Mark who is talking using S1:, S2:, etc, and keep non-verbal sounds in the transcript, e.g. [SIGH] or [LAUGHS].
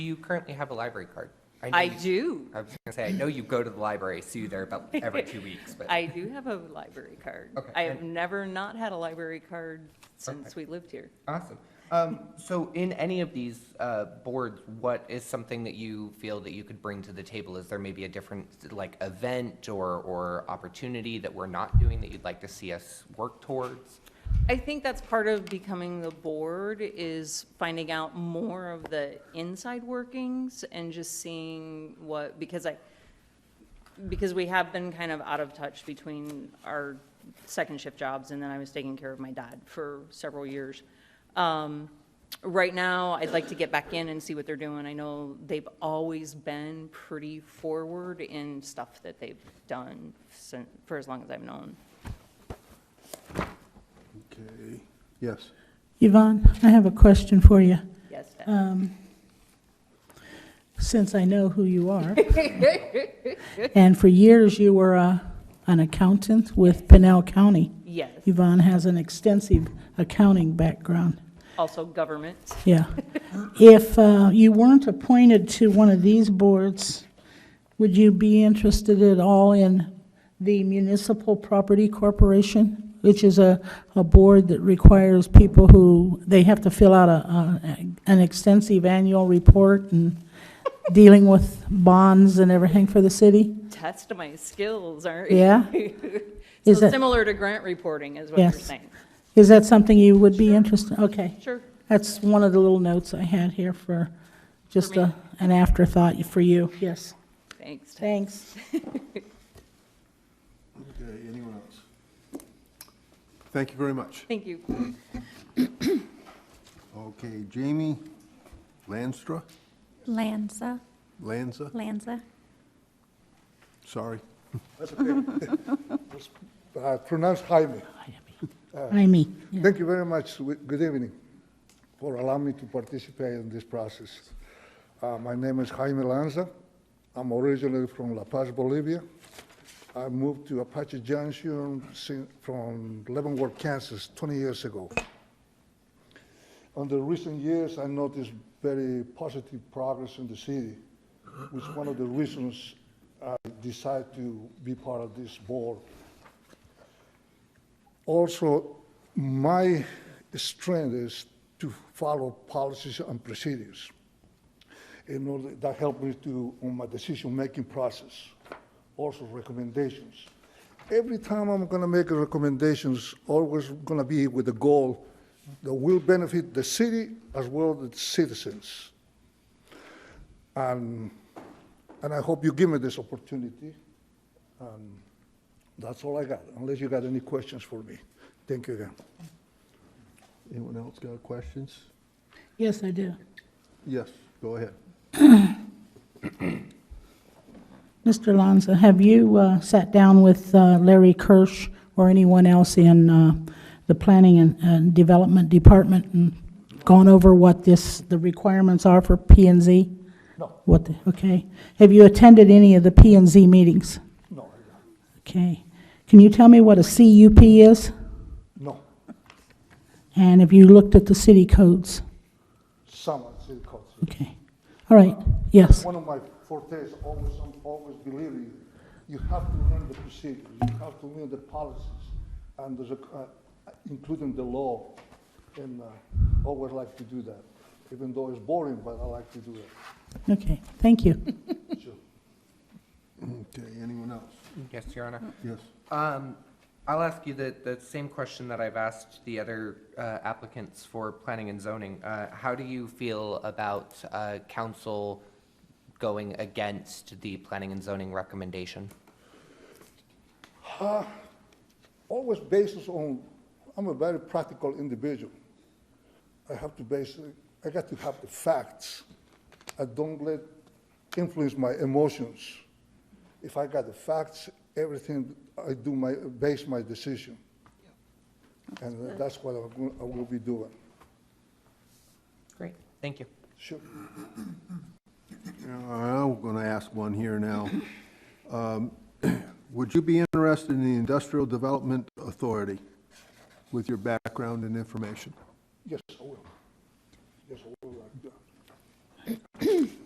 S1: Do you currently have a library card? know
S2: I
S1: you-
S2: do.
S1: I was gonna say, I know you go to the library, see you there
S2: [LAUGHS]
S1: about every two weeks, but.
S2: I do have a library card.
S1: Okay,
S2: I have
S1: and-
S2: never not had a library card since we lived here.
S1: Awesome. Um, so in any of these, uh, boards, what is something that you feel that you could bring to the table? Is there maybe a different, like, event or, or opportunity that we're not doing that you'd like to see us work towards?
S2: I think that's part of becoming the board is finding out more of the inside workings and just seeing what, because I, because we have been kind of out of touch between our second shift jobs, and then I was taking care of my dad for several years. Um, Right now, I'd like to get back in and see what they're doing. I know they've always been pretty forward in stuff that they've done since, for as long as I've known.
S3: Okay, yes.
S4: Yvonne, I have a question for you,
S2: Yes, Dad?
S4: since I know who you are. And for years, you were uh, an accountant with Pinell County.
S2: yes.
S4: Yvonne has an extensive accounting background.
S2: also government.
S4: Yeah. [LAUGHS] If uh, you weren't appointed to one of these boards, would you be interested at all in the Municipal Property Corporation, which is a, a board that requires people who, they have to fill out a, a- an extensive annual report and dealing with bonds and everything for the city?
S2: Test my skills, aren't
S4: Yeah?
S2: you? [LAUGHS]
S4: Is
S2: So
S4: that-
S2: similar to grant reporting is what you're
S4: Yes.
S2: saying.
S4: Is that something you would be interested? Okay.
S2: Sure.
S4: That's one of the little notes I had here for, just
S2: me.
S4: a, an afterthought for you, yes.
S2: Thanks. Ted.
S4: Thanks.
S3: Okay, anyone else? Thank you very much.
S2: Thank you.
S3: Okay, Jamie Landstra,
S5: Lanza,
S3: Lanza,
S5: Lanza.
S3: sorry.
S6: Uh, Pronounced Jaime.
S4: I mean, yeah.
S6: Thank you very much. Wi- Good evening for allowing me to participate in this process. Uh, My name is Jaime Lanza. I'm originally from La Paz, Bolivia. I moved to Apache Junction sin- from Leavenworth, Kansas, 20 years ago. On the recent years, I noticed very positive progress in the city, which one of the reasons I decided to be part of this board. also my strength is to follow policies and procedures. In order that helped me to on my decision-making process, also recommendations. Every time I'm gonna make a recommendations, always gonna be with a goal that will benefit the city as well as the citizens. And, and I hope you give me this opportunity. That's all I got, unless you got any questions for me. Thank you again.
S3: Anyone else got questions?
S4: yes, I do.
S3: Yes, go ahead.
S4: Mr. Lanza, have you uh, sat down with uh, Larry Kirsch or anyone else in uh, the Planning and- and Development Department and gone over what this, the requirements are for P and Z?
S6: No.
S4: What, the- okay. Have you attended any of the P and Z meetings?
S6: No,
S4: Okay. Can you tell me what a CUP is?
S6: no,
S4: And have you looked at the city codes?
S6: some are city council.
S4: Okay. All right, yes.
S6: One of my fortes, always, I'm always believing, you have to learn the procedures, you have to learn the policies, and there's a, uh, including the law, and uh, always like to do that, even though it's boring, but I like to do
S3: [LAUGHS]
S6: that.
S4: Okay, thank you.
S6: Sure.
S3: Okay, anyone else?
S1: Yes, Your Honor.
S3: Yes.
S1: Um, I'll ask you the, the same question that I've asked the other uh, applicants for planning and zoning. Uh, How do you feel about uh, council going against the planning and zoning recommendation?
S6: always bases on, I'm a very practical individual. I have to base, I got to have the facts. I don't let influence my emotions. If I got the facts, everything, I do my, base my decision. And that's what I'm gon- I will be doing.
S1: Great. Thank you.
S6: Sure.
S3: I'm going to ask one here now. Um, [CLEARS THROAT] Would you be interested in the Industrial Development Authority with your background and information?
S6: Yes, I will.